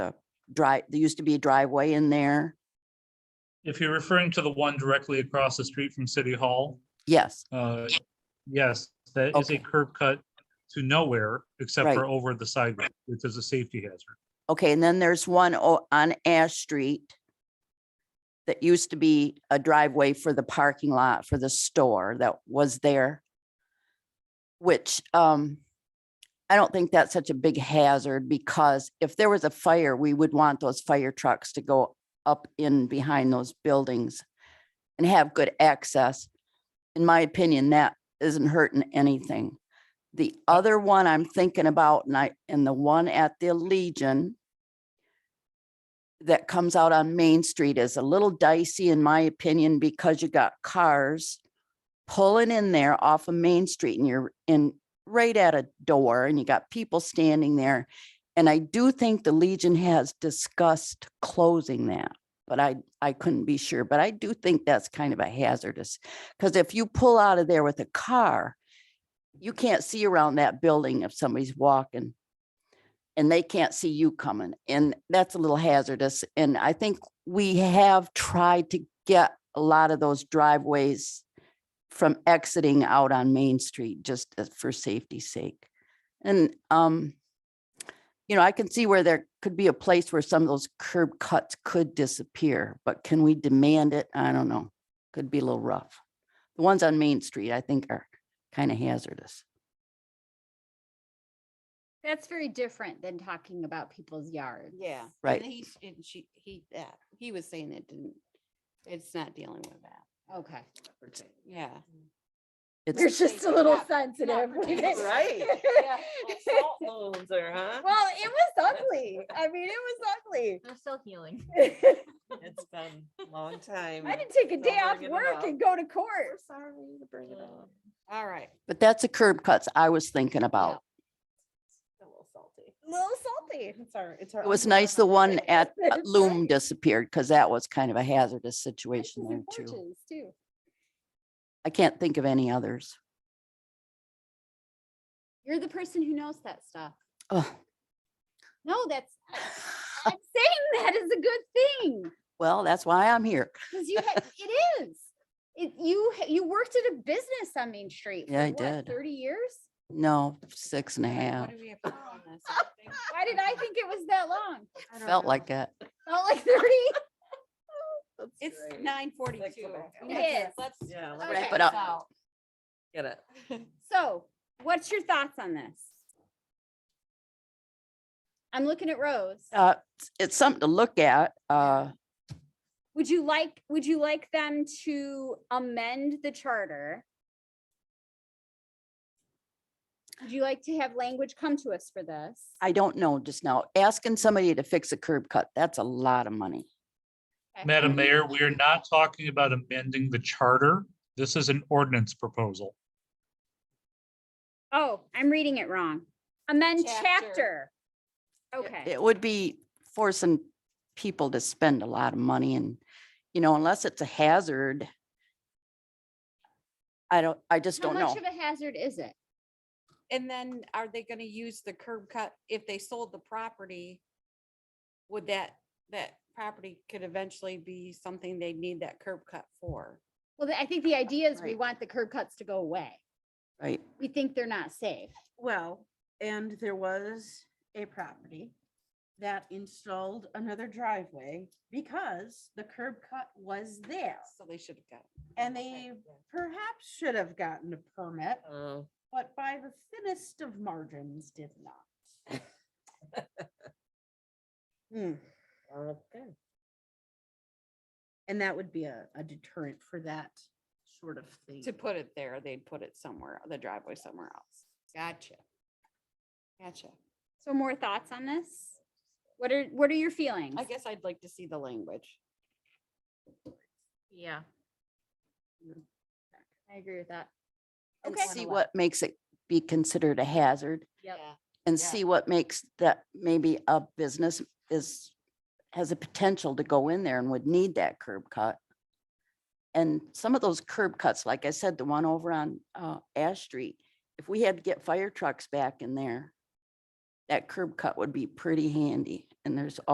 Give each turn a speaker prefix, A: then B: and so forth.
A: drive, there used to be a driveway in there.
B: If you're referring to the one directly across the street from City Hall,
A: Yes,
B: uh, yes, that is a
A: Okay.
B: curb cut to nowhere except
A: Right.
B: for over the sidewalk, which is a safety hazard.
A: okay, and then there's one o- on Ash Street that used to be a driveway for the parking lot for the store that was there, which, um, I don't think that's such a big hazard because if there was a fire, we would want those fire trucks to go up in behind those buildings and have good access. In my opinion, that isn't hurting anything. The other one I'm thinking about, and I, and the one at the Legion that comes out on Main Street is a little dicey, in my opinion, because you got cars pulling in there off of Main Street and you're in right at a door and you got people standing there. And I do think the Legion has discussed closing that, but I, I couldn't be sure, but I do think that's kind of a hazardous. Because if you pull out of there with a car, you can't see around that building if somebody's walking. And they can't see you coming, and that's a little hazardous, and I think we have tried to get a lot of those driveways. From exiting out on Main Street, just as- for safety's sake. And, um. You know, I can see where there could be a place where some of those curb cuts could disappear, but can we demand it? I don't know. Could be a little rough. The ones on Main Street, I think are kind of hazardous.
C: That's very different than talking about people's yards.
D: Yeah. and
A: Right.
D: He, sh- and she, he, that, he was saying it didn't, it's not dealing with that.
C: Okay.
D: Yeah.
A: It's,
C: There's just a
D: Yeah,
C: little
D: yeah,
C: sensitive. with it.
E: Right. Salt bones there, huh?
F: Well, it was ugly. I mean, it was ugly.
C: They're still healing.
E: It's been a long time.
F: I didn't take a
E: Don't
F: day off
E: bring it
F: work
E: up.
F: and go to court.
E: Sorry to bring it up.
D: All right.
A: but that's the curb cuts I was thinking about.
E: A little salty.
F: A little salty.
E: It's our, it's our.
A: It was nice the one at uh,
F: That's
A: Loom
F: right.
A: disappeared because that was kind of a hazardous
C: It's
A: situation there
C: in
A: too.
C: porches, too.
A: I can't think of any others.
C: You're the person who knows that stuff.
A: Ugh.
C: No, that's, I'm saying that is a good thing.
A: Well, that's why I'm here.
C: Cause you, had- it is. It, you, ha- you worked at a business on Main Street.
A: Yeah,
C: for
A: I
C: what,
A: did.
C: Thirty years?
A: No, six and a half.
D: What do we have to do on this? I think-
C: Why did I think it was that long?
D: I don't
A: Felt
D: know.
A: like that.
C: Not like thirty?
D: It's nine forty-two.
E: back out.
C: It is.
D: Let's
E: Yeah,
D: let's
C: Okay,
A: Wrap it up.
D: so-
E: get it.
C: So what's your thoughts on this? I'm looking at Rose.
A: Uh, it's something to look at. Uh,
C: Would you like, would you like them to amend the charter? Would you like to have language come to us for this?
A: I don't know just now. Asking somebody to fix a curb cut, that's a lot of money.
C: Okay.
A: Mm-hmm.
B: Madam Mayor, we are not talking about amending the charter. This is an ordinance proposal.
C: Oh, I'm reading it wrong. Amend chapter.
D: Chapter.
C: Okay,
A: It would be forcing people to spend a lot of money and, you know, unless it's a hazard. I don't, I just
C: how
A: don't
C: much
A: know.
C: of a hazard is it?
D: And then are they gonna use the curb cut if they sold the property? Would that, that property could eventually be something they'd need that curb cut for?
C: Well, I think the idea is we
A: Right.
C: want the curb cuts to go away.
A: Right,
C: We think they're not safe.
G: Well, and there was a property that installed another driveway because the curb cut was there.
D: So they should have got.
G: And they perhaps should have gotten a permit,
E: Oh,
G: but by the thinnest of margins did not. Hmm,
E: okay.
G: And that would be a, a deterrent for that sort of thing.
D: To put it there, they'd put it somewhere, the driveway somewhere else. Gotcha. Gotcha.
C: So more thoughts on this? What are, what are your feelings?
D: I guess I'd like to see the language.
H: Yeah. I agree with that.
A: and
C: Okay.
A: see what makes it be considered a hazard
H: Yep.
A: and
D: Yeah.
A: see what makes that maybe a business is, has a potential to go in there and would need that curb cut. And some of those curb cuts, like I said, the one over on uh, Ash Street, if we had to get fire trucks back in there, that curb cut would be pretty handy. And there's